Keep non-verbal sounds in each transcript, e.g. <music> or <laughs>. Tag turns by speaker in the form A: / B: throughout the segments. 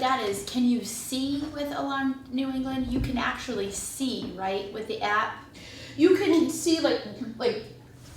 A: that is, can you see with Alarm New England? You can actually see, right, with the app?
B: you can see like like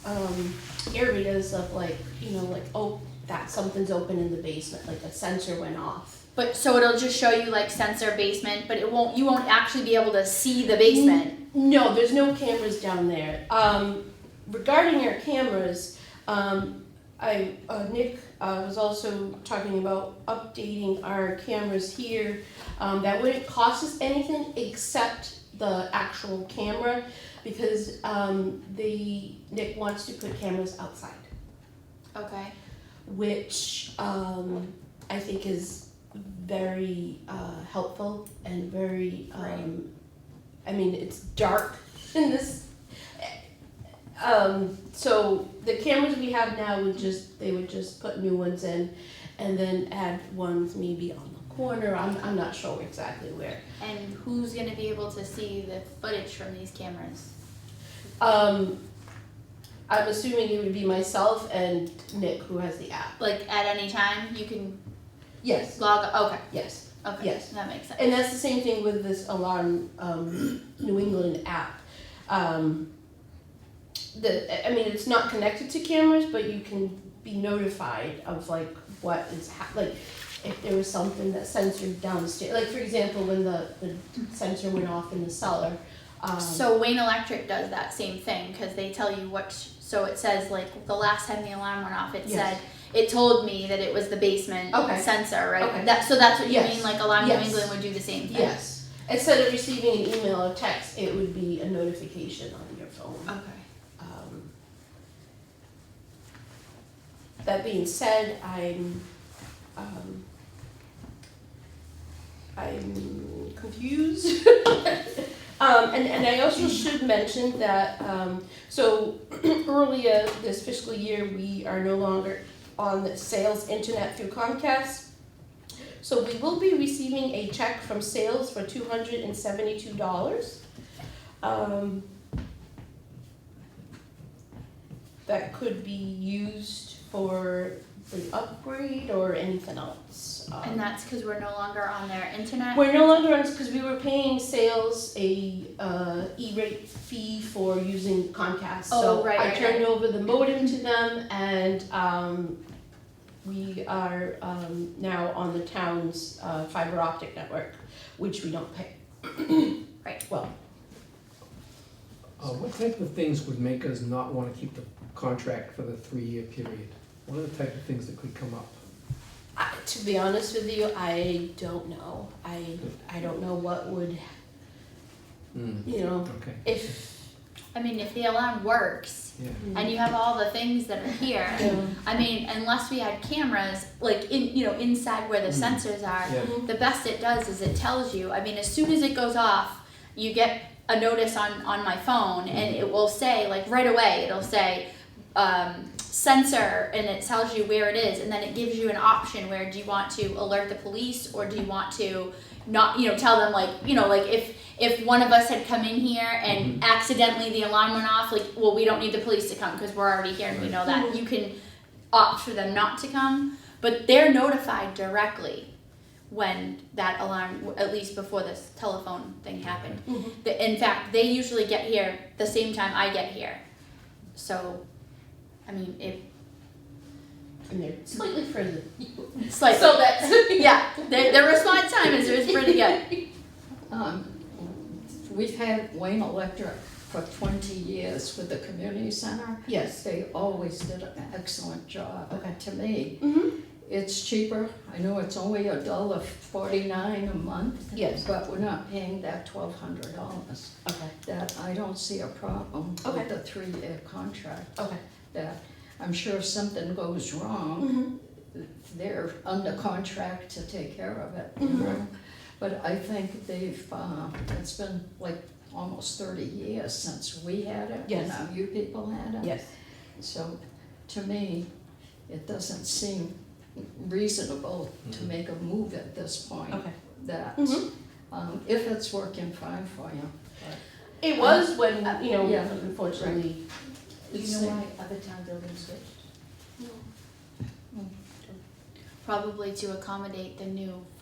B: um, areas of like you know like oh that something's open in the basement like a sensor went off.
A: But so it'll just show you like sensor basement, but it won't. You won't actually be able to see the basement.
B: No, there's no cameras down there. Um, regarding our cameras, um, I uh, Nick uh, was also talking about updating our cameras here. Um, that wouldn't cost us anything except the actual camera, because um, the Nick wants to put cameras outside,
A: Okay.
B: which um, I think is very uh, helpful and very. Um, I mean, it's dark <laughs> in this. Um, so the cameras we have now would just they would just put new ones in, and then add ones maybe on the corner. I'm I'm not sure exactly where.
A: And who's gonna be able to see the footage from these cameras?
B: Um, I'm assuming it would be myself and Nick who has the app.
A: Like at any time, you can
B: Yes.
A: log. Okay.
B: Yes.
A: Okay.
B: Yes.
A: That makes sense.
B: And that's the same thing with this alarm um, New England app. Um, the I mean, it's not connected to cameras, but you can be notified of like what is hap like if there was something that censored downstairs. Like for example, when the, the sensor went off in the cellar. Um,
A: So Wayne Electric does that same thing because they tell you what. So it says like the last time the alarm went off, it
B: Yes.
A: said it told me that it was the basement
B: Okay.
A: sensor, right?
B: Okay.
A: That so that's what you
B: Yes.
A: mean. Like Alarm
B: Yes.
A: New England would do the same thing.
B: yes, instead of receiving an email or text, it would be a notification on your phone.
A: Okay.
B: Um, That being said, I'm, um, I'm confused. <laughs> Um, and, and I also should mention that, um, so <clears throat> earlier this fiscal year, we are no longer on the sales internet through Comcast. So we will be receiving a check from sales for two hundred and seventy-two dollars. Um, that could be used for the upgrade or anything else. Um,
A: And that's because we're no longer on their internet.
B: we're no longer on because we were paying sales a uh, e-rate fee for using Comcast. so
A: Oh, right,
B: I
A: right,
B: turned over the modem to them, and um, we are um, now on the town's uh, fiber optic network, which we don't pay.
A: <coughs> Right.
B: Well,
C: Uh, what type of things would make us not wanna keep the contract for the three-year period? What are the type of things that could come up?
B: I, to be honest with you, I don't know. I I don't know what would
C: Hmm,
B: you know
C: okay,
B: if.
A: I mean, if the alarm works
C: yeah.
A: and you have all the things that are here,
B: um,
A: I mean, unless we had cameras, like in you know inside where the
B: Mm-hmm.
C: Mm.
A: sensors are,
C: Yeah.
A: the best it does is it tells you. I mean, as soon as it goes off, you get a notice on on my phone, and it will say like right away. It'll say um, sensor, and it tells you where it is, and then it gives you an option where do you want to alert the police or do you want to not you know tell them like you know like if if one of us had come in here and accidentally the alarm went off like well we don't need the police to come because we're already here and we
C: Right.
A: know that you can opt for them not to come but they're notified directly when that alarm at least before this telephone thing happened
B: Mhm.
A: The- in fact they usually get here the same time i get here so i mean if
B: And they're slightly further.
A: it's like
B: so <laughs> that's
A: <laughs> yeah their, their response time is, is pretty good
D: Um, We've had Wayne Electric for twenty years with the community center.
B: yes.
D: They always did an excellent job.
B: Okay.
D: To me,
B: Mm-hmm.
D: it's cheaper. I know it's only a dollar forty-nine a month.
B: Yes.
D: But we're not paying that twelve hundred dollars.
B: Okay.
D: That I don't see a problem
B: Okay.
D: with the three-year contract.
B: Okay.
D: That I'm sure if something goes wrong,
B: Mhm.
D: they're under contract to take care of it, you
B: Mhm.
D: know? But I think they've, uh, it's been like almost thirty years since we had it,
B: Yes.
D: and now you people had it.
B: Yes.
D: So, to me, it doesn't seem reasonable to
C: Mhm.
D: make a move at this point.
B: Okay.
D: That,
B: Mhm.
D: um, if it's working fine for you.
B: It was when you know,
D: Yeah.
B: unfortunately.
E: Do you
B: it's-
E: know why other towns are being switched?
A: probably to accommodate the new